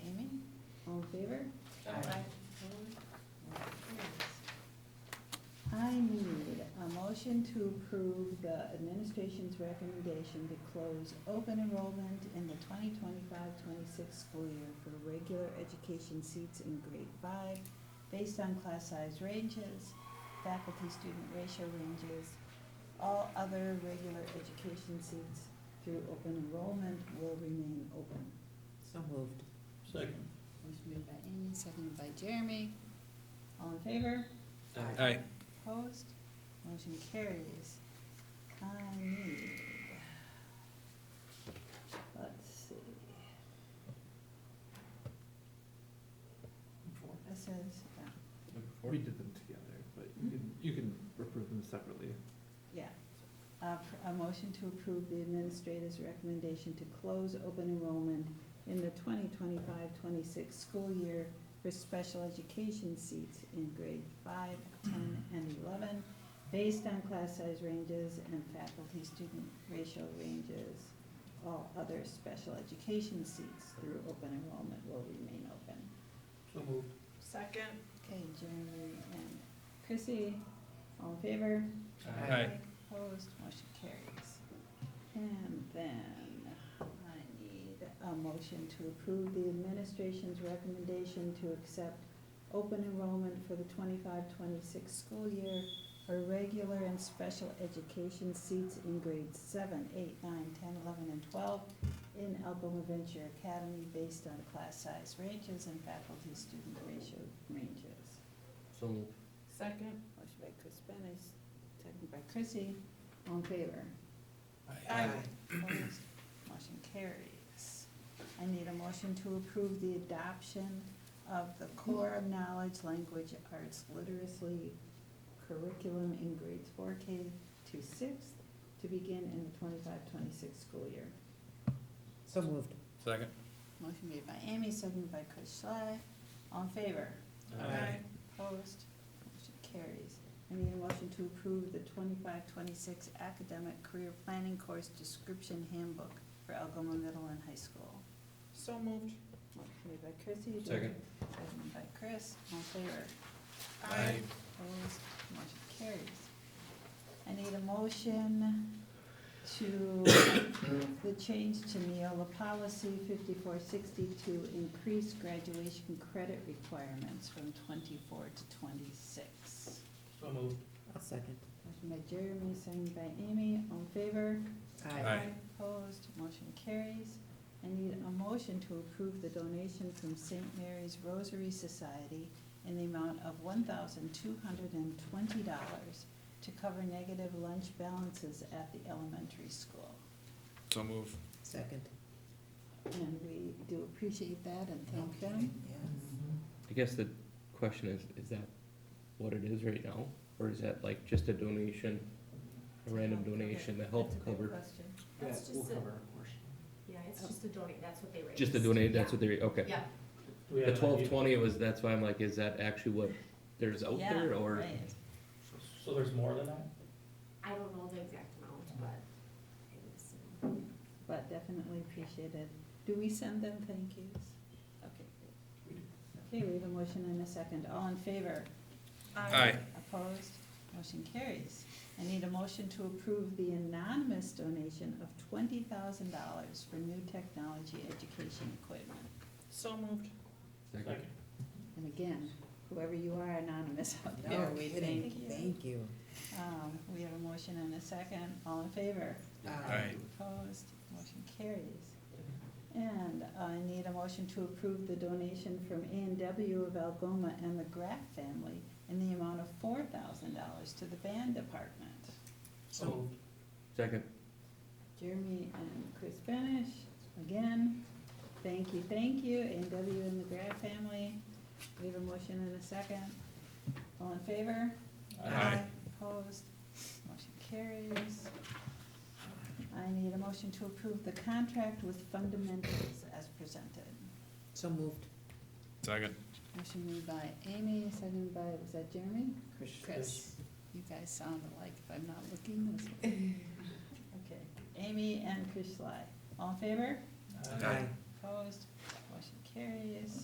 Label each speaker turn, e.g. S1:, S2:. S1: favor?
S2: Aye.
S1: Opposed? Motion carries. I need a motion to approve the administration's recommendation to close open enrollment in the 2025-26 school year for regular education seats in grade five based on class size ranges, faculty-student ratio ranges, all other regular education seats through open enrollment will remain open.
S2: So moved.
S3: Second.
S1: Motion made by Amy, seconded by Jeremy. All in favor?
S2: Aye.
S3: Aye.
S1: Opposed? Motion carries. I need, let's see, this is, uh,
S4: We did them together, but you can, you can approve them separately.
S1: yeah, a, pr- a motion to approve the administrator's recommendation to close open enrollment in the 2025-26 school year for special education seats in grade five, ten, and eleven, based on class size ranges and faculty-student ratio ranges. All other special education seats through open enrollment will remain open.
S3: So moved.
S2: Second.
S1: Okay, Jeremy and Chrissy, all in favor?
S3: Aye. Aye.
S1: Opposed, motion carries. And then I need a motion to approve the administration's recommendation to accept open enrollment for the 25-26 school year for regular and special education seats in grades 7, 8, 9, 10, 11, and twelve in Algoma Venture Academy based on class size ranges and faculty-student ratio ranges.
S3: So moved.
S2: Second.
S1: Motion by Chris Benish, second by Chrissy, all in favor? Opposed? Motion carries. I need a motion to approve the adoption of the Core of Knowledge Language Arts Literacy curriculum in grades four K to sixth to begin in the 25-26 school year.
S2: So moved.
S3: Second.
S1: Motion made by Amy, seconded by Chris Schley, all in favor?
S2: Aye.
S1: Opposed, motion carries. I need a motion to approve the 25-26 academic career planning course description handbook for Algoma Middle and High School.
S2: So moved.
S1: Motion made by Chrissy. do I-
S3: Second.
S1: Seconded by Chris, all in favor?
S3: Aye.
S1: Opposed, motion carries. I need a motion to, the change to Neola policy fifty-four sixty to increase graduation credit requirements from twenty-four to twenty-six.
S3: So moved.
S2: I'll second.
S1: Motion by Jeremy, seconded by Amy, all in favor?
S3: Aye.
S1: Opposed, motion carries. I need a motion to approve the donation from St. Mary's Rosary Society in the amount of one thousand two hundred and twenty dollars to cover negative lunch balances at the elementary school.
S3: So moved.
S2: Second.
S1: And we do appreciate that and thank them.
S4: I guess the question is, is that what it is right now, or is that like just a donation, a random donation to help
S1: That's a good
S4: cover?
S1: question.
S5: That's
S3: Yeah,
S5: just
S3: we'll
S5: a-
S3: cover a portion.
S5: Yeah, it's just a donate, that's what they raised.
S4: Just a donate, that's what they, okay.
S5: Yeah,
S3: Do we
S4: The
S3: have an idea?
S4: twelve twenty was, that's why I'm like, is that actually what there's out
S1: Yeah,
S4: there, or?
S1: right.
S3: So there's more than that?
S5: I don't know the exact amount, but it was, uh,
S1: But definitely appreciate it. Do we send them thank yous? Okay,
S3: We do.
S1: great. Okay, we have a motion and a second. All in favor?
S3: Aye.
S1: Opposed? Motion carries. I need a motion to approve the anonymous donation of twenty thousand dollars for new technology education equipment.
S2: So moved.
S3: Second.
S1: And again, whoever you are anonymous out there, we thank you.
S2: Thank you.
S1: Um, we have a motion and a second. All in favor?
S3: Aye.
S1: Opposed, motion carries. And I need a motion to approve the donation from A and W of Algoma and the Graff family in the amount of four thousand dollars to the band department.
S3: So moved.
S4: Second,
S1: Jeremy and Chris Benish, again, thank you, thank you, A and W and the Graff family. We have a motion and a second. All in favor?
S3: Aye.
S1: Opposed, motion carries. I need a motion to approve the contract with fundamentals as presented.
S2: So moved.
S3: Second.
S1: Motion made by Amy, seconded by, was that Jeremy?
S2: Chris.
S1: You guys sound alike if I'm not looking. that's okay. Okay, Amy and Chris Sly, all in favor?
S3: Aye.
S1: Opposed, motion carries.